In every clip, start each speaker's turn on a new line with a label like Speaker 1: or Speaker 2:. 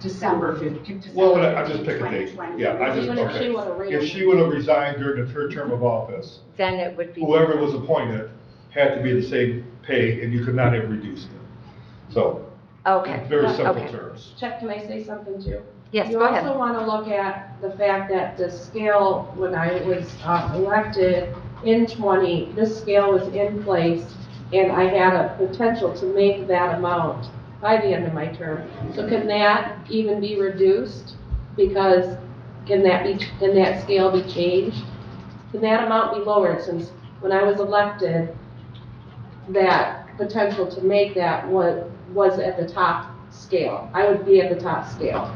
Speaker 1: December fifteenth.
Speaker 2: Well, I- I'm just picking a date. Yeah, I just,
Speaker 3: Even if she
Speaker 2: okay.
Speaker 3: wanna read
Speaker 2: If
Speaker 3: them.
Speaker 2: she would have resigned during her term of office,
Speaker 4: Then it would be.
Speaker 2: whoever was appointed had to be the same pay and you could not have reduced it. So,
Speaker 4: Okay.
Speaker 2: very
Speaker 3: Okay.
Speaker 2: simple terms.
Speaker 3: Chuck, can I say something too?
Speaker 4: Yes, go
Speaker 3: You
Speaker 4: ahead.
Speaker 3: also want to look at the fact that the scale, when I was uh, elected in 20, this scale was in place, and I had a potential to make that amount by the end of my term. So can that even be reduced? Because can that be, can that scale be changed? Can that amount be lowered since when I was elected, that potential to make that was, was at the top scale? I would be at the top scale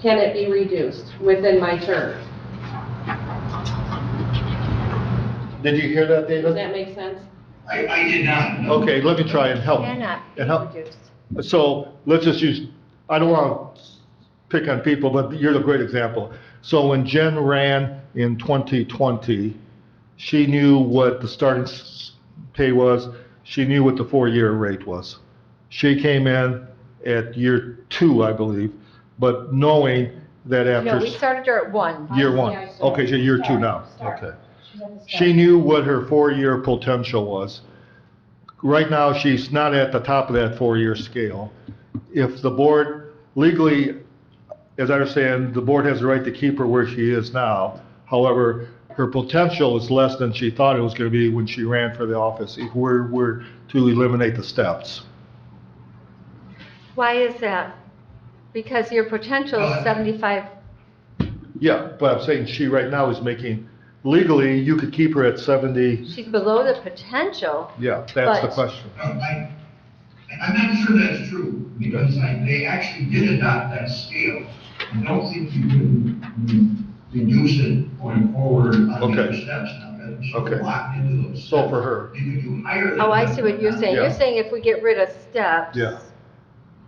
Speaker 3: can it be reduced within my term?
Speaker 2: Did you hear that,
Speaker 3: Does that make sense?
Speaker 5: I, I did not. know.
Speaker 2: Okay, let me try and help.
Speaker 4: Cannot be
Speaker 2: And help.
Speaker 4: reduced.
Speaker 2: So let's just use, I don't want to pick on people, but you're the great example. So when Jen ran in 2020, she knew what the starting s- pay was, she knew what the four-year rate was. She came in at year two, I believe, but knowing that
Speaker 4: No,
Speaker 2: after
Speaker 4: we
Speaker 2: s-
Speaker 4: started her at one.
Speaker 2: year one.
Speaker 3: Yeah, I saw.
Speaker 2: Okay, so year two
Speaker 3: Sorry,
Speaker 2: now,
Speaker 3: sorry.
Speaker 2: okay. She knew what her four-year potential was. Right now, she's not at the top of that four-year scale. If the board legally, as I understand, the board has the right to keep her where she is now. However, her potential is less than she thought it was going to be when she ran for the office, if we're, we're to eliminate the steps.
Speaker 4: Why is that? Because your potential
Speaker 2: Uh,
Speaker 4: is seventy-five,
Speaker 2: Yeah, but I'm saying she right now is making, legally, you could keep her at 70,
Speaker 4: she's below the potential.
Speaker 2: yeah, that's the
Speaker 4: But-
Speaker 2: question.
Speaker 5: No, I, I'm not sure that's true, because I, they actually did adopt that scale. I don't think you can reduce it going forward on the other
Speaker 2: Okay.
Speaker 5: steps now. That's
Speaker 2: Okay.
Speaker 5: Locked into those.
Speaker 2: So for her.
Speaker 5: You could do higher than.
Speaker 4: Oh, I
Speaker 5: that,
Speaker 4: see what you're
Speaker 5: but
Speaker 4: saying. You're
Speaker 2: Yeah.
Speaker 4: saying if we get rid of steps.
Speaker 2: Yeah.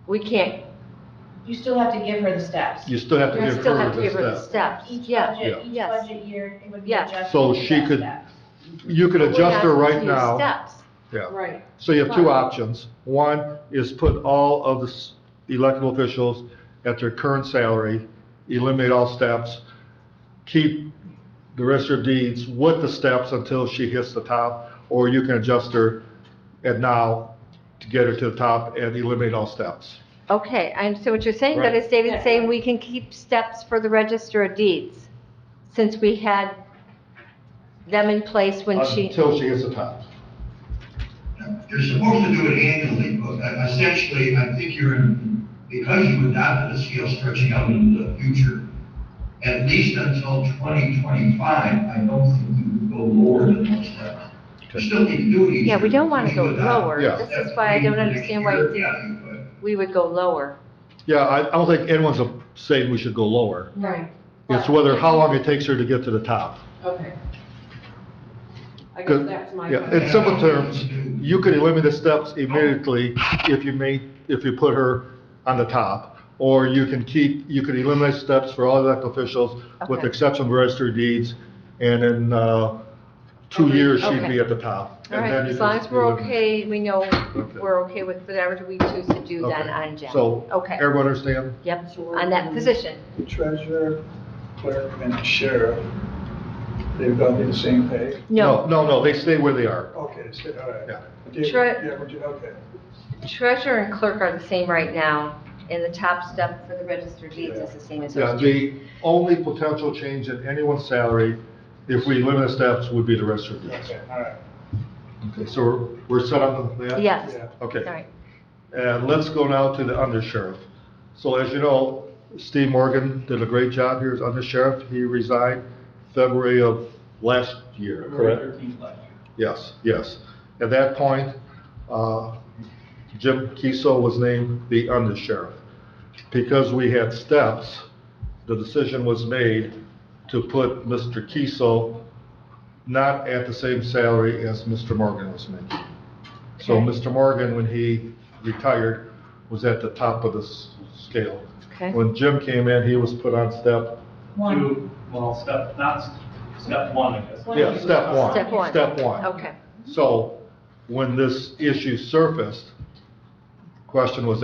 Speaker 4: We can't,
Speaker 6: You still have to give her the steps.
Speaker 2: You still have to
Speaker 4: you
Speaker 2: give
Speaker 4: still
Speaker 2: her
Speaker 4: have to
Speaker 2: the
Speaker 4: give her the
Speaker 2: step.
Speaker 4: steps.
Speaker 6: Each
Speaker 4: Yeah,
Speaker 2: Yeah.
Speaker 6: budget, each
Speaker 4: Yes.
Speaker 6: budget year, it would be
Speaker 4: Yeah.
Speaker 6: adjusted.
Speaker 2: So
Speaker 6: to
Speaker 2: she
Speaker 6: that
Speaker 2: could-
Speaker 6: step.
Speaker 2: You could
Speaker 4: But we're
Speaker 2: adjust
Speaker 4: not
Speaker 2: her
Speaker 4: supposed
Speaker 2: right
Speaker 4: to use
Speaker 2: now.
Speaker 4: Steps.
Speaker 2: Yeah,
Speaker 3: Right.
Speaker 2: so you have two
Speaker 3: Right.
Speaker 2: options. One is put all of the s- elected officials at their current salary, eliminate all steps, keep the rest of her deeds with the steps until she hits the top, or you can adjust her at now to get her to the top and eliminate all steps.
Speaker 4: Okay, I understand what you're saying, but
Speaker 2: Right.
Speaker 4: as David's
Speaker 3: Yeah.
Speaker 4: saying, we can keep steps for the register of deeds, since we had them in place when she,
Speaker 2: Until she hits the top.
Speaker 5: You're supposed to do it annually, but e- essentially, I think you're, in because you adopted a scale stretching out into the future, at least until 2025, I don't think you can go lower than those levels. You still need to do it each
Speaker 4: yeah, we
Speaker 5: year
Speaker 4: don't want to
Speaker 5: because
Speaker 4: go
Speaker 5: you adopt
Speaker 4: lower.
Speaker 2: Yeah.
Speaker 4: This
Speaker 5: that
Speaker 4: is why I don't
Speaker 5: next
Speaker 4: understand why
Speaker 5: year
Speaker 4: you think
Speaker 5: value, but-
Speaker 4: we would go lower.
Speaker 2: Yeah, I, I don't think anyone's uh, saying we should go lower.
Speaker 3: Right.
Speaker 2: It's whether, how long it takes her to get to the top.
Speaker 3: Okay. I guess
Speaker 2: Good.
Speaker 3: that's my.
Speaker 2: Yeah, in simple terms, you could eliminate the steps immediately if you made, if you put her on the top. Or you can keep, you could eliminate steps for all elected officials with the
Speaker 4: Okay.
Speaker 2: exception of registered deeds. And in, uh, two years, she'd
Speaker 4: Okay.
Speaker 2: be at the top.
Speaker 4: All
Speaker 2: And
Speaker 4: right,
Speaker 2: then you
Speaker 4: as long
Speaker 2: just
Speaker 4: as we're
Speaker 2: eliminate-
Speaker 4: okay, we know
Speaker 2: Okay.
Speaker 4: we're okay with whatever we choose to do then
Speaker 2: Okay.
Speaker 4: on Jen.
Speaker 2: So,
Speaker 4: Okay,
Speaker 2: everyone understand?
Speaker 4: yep, on that position.
Speaker 7: The treasurer, clerk, and the sheriff, they've got the same pay?
Speaker 4: No,
Speaker 2: No, no, they stay where they are.
Speaker 7: Okay, so, all right.
Speaker 2: Yeah.
Speaker 7: Okay,
Speaker 4: Tre-
Speaker 7: yeah, would you- okay.
Speaker 4: treasurer and clerk are the same right now, and the top step for the register of deeds is the same as
Speaker 2: Yeah,
Speaker 4: those two.
Speaker 2: the only potential change in anyone's salary, if we eliminate steps, would be the registered deeds.
Speaker 7: Okay, all right.
Speaker 2: Okay, so we're, we're set on that?
Speaker 4: Yes,
Speaker 7: Yeah.
Speaker 2: Okay.
Speaker 4: all right.
Speaker 2: And let's go now to the undersheriff. So as you know, Steve Morgan did a great job here as undersheriff. He resigned February of last year, correct? Yes, yes. At that point, uh, Jim Kiesel was named the undersheriff. Because we had steps, the decision was made to put Mr. Kiesel not at the same salary as Mr. Morgan was making. So
Speaker 4: Okay.
Speaker 2: Mr. Morgan, when he retired, was at the top of the s- scale.
Speaker 4: Okay.
Speaker 2: When Jim came in, he was put on step,
Speaker 6: One,
Speaker 8: Two, well, step, not, s- step one, I guess.
Speaker 6: One.
Speaker 2: yeah, step one.
Speaker 4: Step one.
Speaker 2: Step one.
Speaker 4: Okay.
Speaker 2: So when this issue surfaced, question was